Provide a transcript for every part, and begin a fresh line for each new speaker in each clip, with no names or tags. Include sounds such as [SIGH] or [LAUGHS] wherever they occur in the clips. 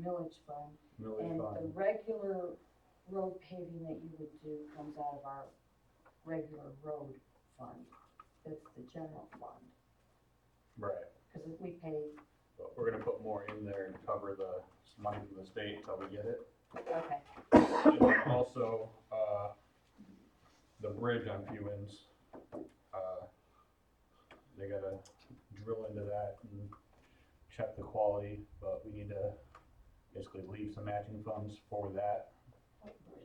millage fund,
Millage
and the
fund,
regular road paving that you would do comes out of our regular road fund. That's the general fund,
right,
because we pay,
but we're gonna put more in there and cover the money from the state until we get it.
[COUGHS] okay,
And then also, uh, the bridge on Fewens, uh, they gotta drill into that and check the quality, but we need to basically leave some matching funds for that,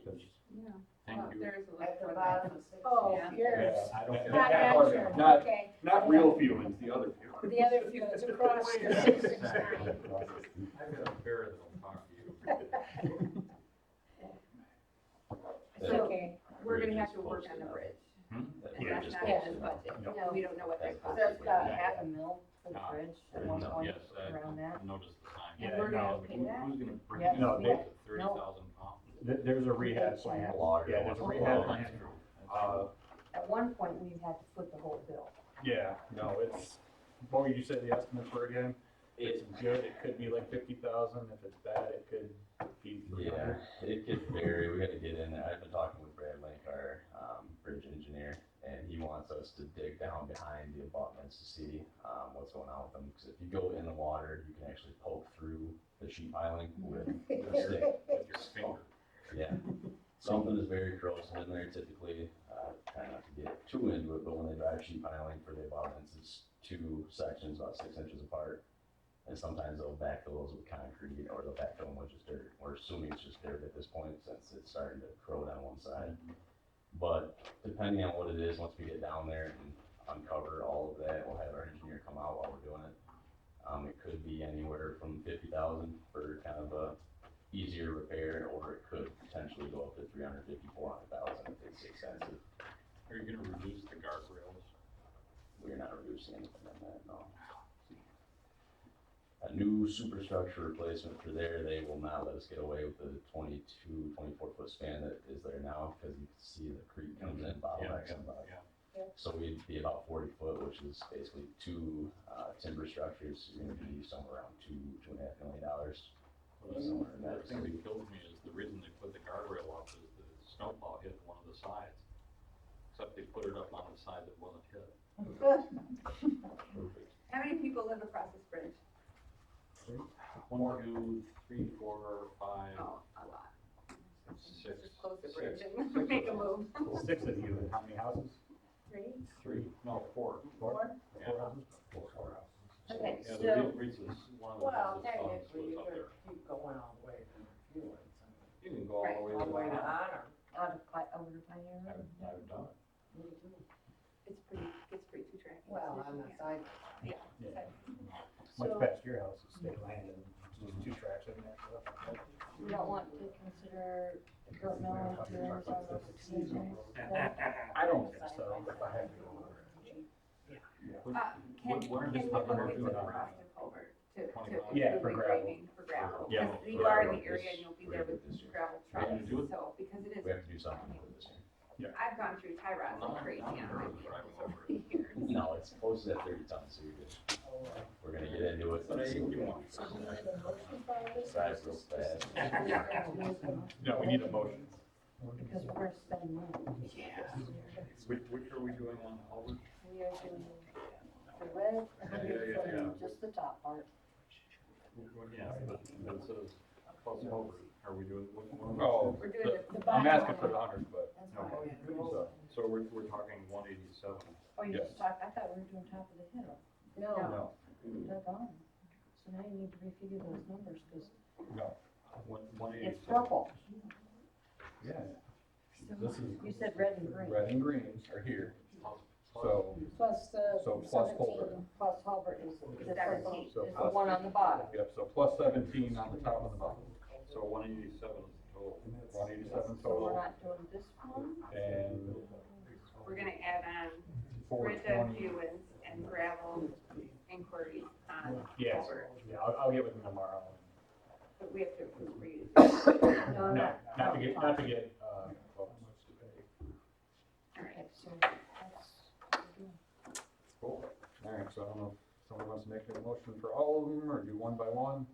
because.
Yeah.
Thank you.
There is a
At the
list.
bottom of six.
oh,
Yeah.
yours.
Yeah, I don't-
Not
that part of it.
yours,
Not,
okay,
not real Fewens, the other Fewens.
the other few, it's across
[LAUGHS]
the six six nine.
I've got a bear that'll talk to you.
So
Okay,
we're gonna have
Bridge
to
is
work
posted
on the
up.
bridge.
Hmm?
That's
Yeah,
not
just
in
posted
this
up.
budget.
No.
We don't know what their
That's
cost
there's
is.
about half a mil for the
Ah,
bridge at one
No,
point
Yes, I
around that.
noticed the sign.
Yeah,
Who's
no,
gonna-
pay that?
Who's gonna bring
Yeah,
in
no, they-
thirty thousand pounds?
There, there's a rehab plan, yeah, there's a rehab plan,
That's true. That's
uh,
At one point, we had to foot the whole bill.
Yeah, no, it's, what would you say the estimates were again? If it's good, it could be like fifty thousand, if it's bad, it could be three
Yeah,
hundred.
it could vary. We gotta get in there. I've been talking with Brad Link, our, um, bridge engineer, and he wants us to dig down behind the abutments to see, um, what's going on with them. Cause if you go in the water, you can actually poke through the sheet piling with your stick.
With your finger.
Yeah, something is very corrosive in there typically, uh, try not to get too into it, but when they drive sheet piling for the abutments, it's two sections about six inches apart. And sometimes they'll backfill those with concrete, or they'll backfill them with just dirt, we're assuming it's just dirt at this point, since it's starting to corrode on one side. But depending on what it is, once we get down there and uncover all of that, we'll have our engineer come out while we're doing it. Um, it could be anywhere from fifty thousand for kind of a easier repair, or it could potentially go up to three hundred fifty, four hundred thousand if it's expensive.
Are you gonna reduce the guardrails?
We're not reducing anything on that, no. A new superstructure replacement for there, they will not let us get away with the 22, 24 foot span that is there now, cause you can see the creek comes in, bottlenecks and bottlenecks.
Yeah.
So we'd be about forty foot, which is basically two, uh, timber structures, you're gonna be somewhere around two, two and a half million dollars. Somewhere in
The
that.
thing that killed me is the reason they put the guardrail up is the snowplow hit one of the sides. Except they put it up on the side that wasn't hit. Perfect.
How many people live across this bridge?
One, two, three, four, five,
Oh, a lot.
six.
Just close the
six-
bridge
six
and [LAUGHS]
of
make a
them.
move.
Six of you, and how many houses?
Right?
Three, no, four.
Four?
Yeah.
Four houses?
Four hours.
Okay,
Yeah, the
so,
Reed- Reed's is one of the
Well,
houses funds
technically,
was
you
up
could
there.
keep going all the way from the fuel.
You can go all the way to
All the way to
the.
honor.
out of, Pi- over to Pioneer
I've,
Road.
I've done
It's pretty, it's pretty two track.
Well, on the side.
Yeah.
Yeah. Much
So,
past your house, it's state land, and just two tracks in there.
you don't want to consider the current mill into an over to Pioneer?
I don't think so, if I had to go over
it.
Uh, Can,
What-
can we
what
look
are
at
these
the
other
cost
two
of
around?
culvert to, to.
Twenty-five.
Yeah,
do
for
the
gravel.
grading For gravel,
Yeah,
because
for
you are in
gravel.
the area and you'll be there with gravel trucks,
Yeah, do it.
so, because it is,
We have to do something with this here.
I've gone through tie rods
Not-
like crazy
not
on my
nervous driving
vehicles
over
over the years.
No, it's close to that thirty tons, so you're good.
Oh,
We're gonna get into it.
But I,
let's see what
you want.
the Size real fast.
No, [LAUGHS] we need a motion.
Because we're gonna spend money.
Which, which are we doing on Albert?
We are doing the red,
Yeah, yeah, yeah, yeah.
just the top part.
Yeah, but, but it says plus Albert, are we doing, what, what?
Oh,
We're doing
The
I'm
bottom
asking
one.
for the hundred, but,
That's
No.
fine.
so, so we're, we're talking one eighty-seven.
Oh, you
Yes.
just talked, I thought we were doing top of the hill. No,
no,
they're gone. So now you need to refigure those numbers, because
no,
One, one
it's
eighty-seven.
purple.
yeah, this is
You said red and green.
red and greens are here,
Plus- plus-
so.
Plus the
So plus culvert.
seventeen, plus Hulbert is the
Seventeen.
seventeen, is
So
the
plus-
one on the bottom.
Yep, so plus seventeen on the top and the bottom,
So one eighty-seven is the total.
one eighty-seven
So we're
total,
not doing this one?
and
the, we're gonna add on
four
Brenda
twenty.
Hewens and gravel inquiries um, on
Yes,
culvert,
yeah, I'll, I'll get with them tomorrow.
but we have to approve for you.
No,
No, not to get, not to get, uh, well,
All right.
Okay, so that's, what we're doing.
cool. All right, so I don't know if someone wants to make a motion for all of them, or do one by one?